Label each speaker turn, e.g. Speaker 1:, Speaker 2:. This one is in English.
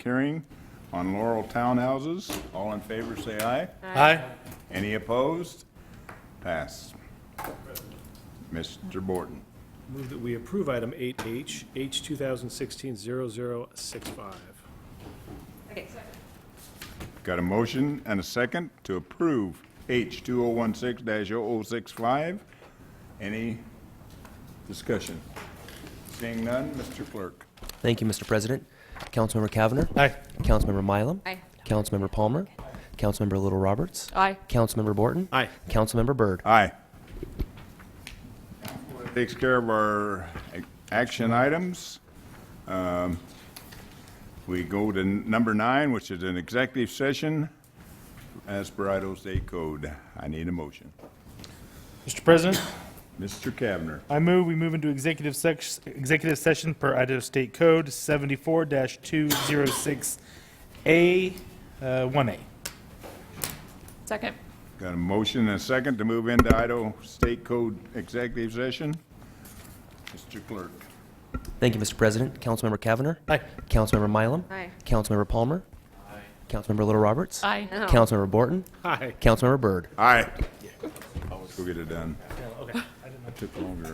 Speaker 1: hearing on Laurel Townhouses. All in favor, say aye.
Speaker 2: Aye.
Speaker 1: Any opposed? Pass. Mr. Borton.
Speaker 3: Move that we approve item 8H, H 2016-0065.
Speaker 1: Got a motion and a second to approve H 2016-0065. Any discussion? Seeing none, Mr. Clerk.
Speaker 4: Thank you, Mr. President. Councilmember Cavanagh.
Speaker 2: Aye.
Speaker 4: Councilmember Mylum.
Speaker 5: Aye.
Speaker 4: Councilmember Palmer. Councilmember Little Roberts.
Speaker 5: Aye.
Speaker 4: Councilmember Borton.
Speaker 3: Aye.
Speaker 4: Councilmember Byrd.
Speaker 1: Aye. Takes care of our ac- action items. Um, We go to n- number nine, which is an executive session as per Idaho State Code. I need a motion.
Speaker 2: Mr. President,
Speaker 1: Mr. Kavner,
Speaker 2: I move we move into executive sex, executive session per Idaho State Code 74-206A, uh, 1A.
Speaker 5: Second.
Speaker 1: got a motion and a second to move into Idaho State Code executive session? Mr. Clerk.
Speaker 4: Thank you, Mr. President. Councilmember Cavanagh.
Speaker 2: Aye.
Speaker 4: Councilmember Mylum.
Speaker 5: Aye.
Speaker 4: Councilmember Palmer. Aye. Councilmember Little Roberts.
Speaker 5: Aye.
Speaker 4: Councilmember Borton.
Speaker 3: Aye.
Speaker 4: Councilmember Byrd.
Speaker 1: Aye. Go get it done. Took longer.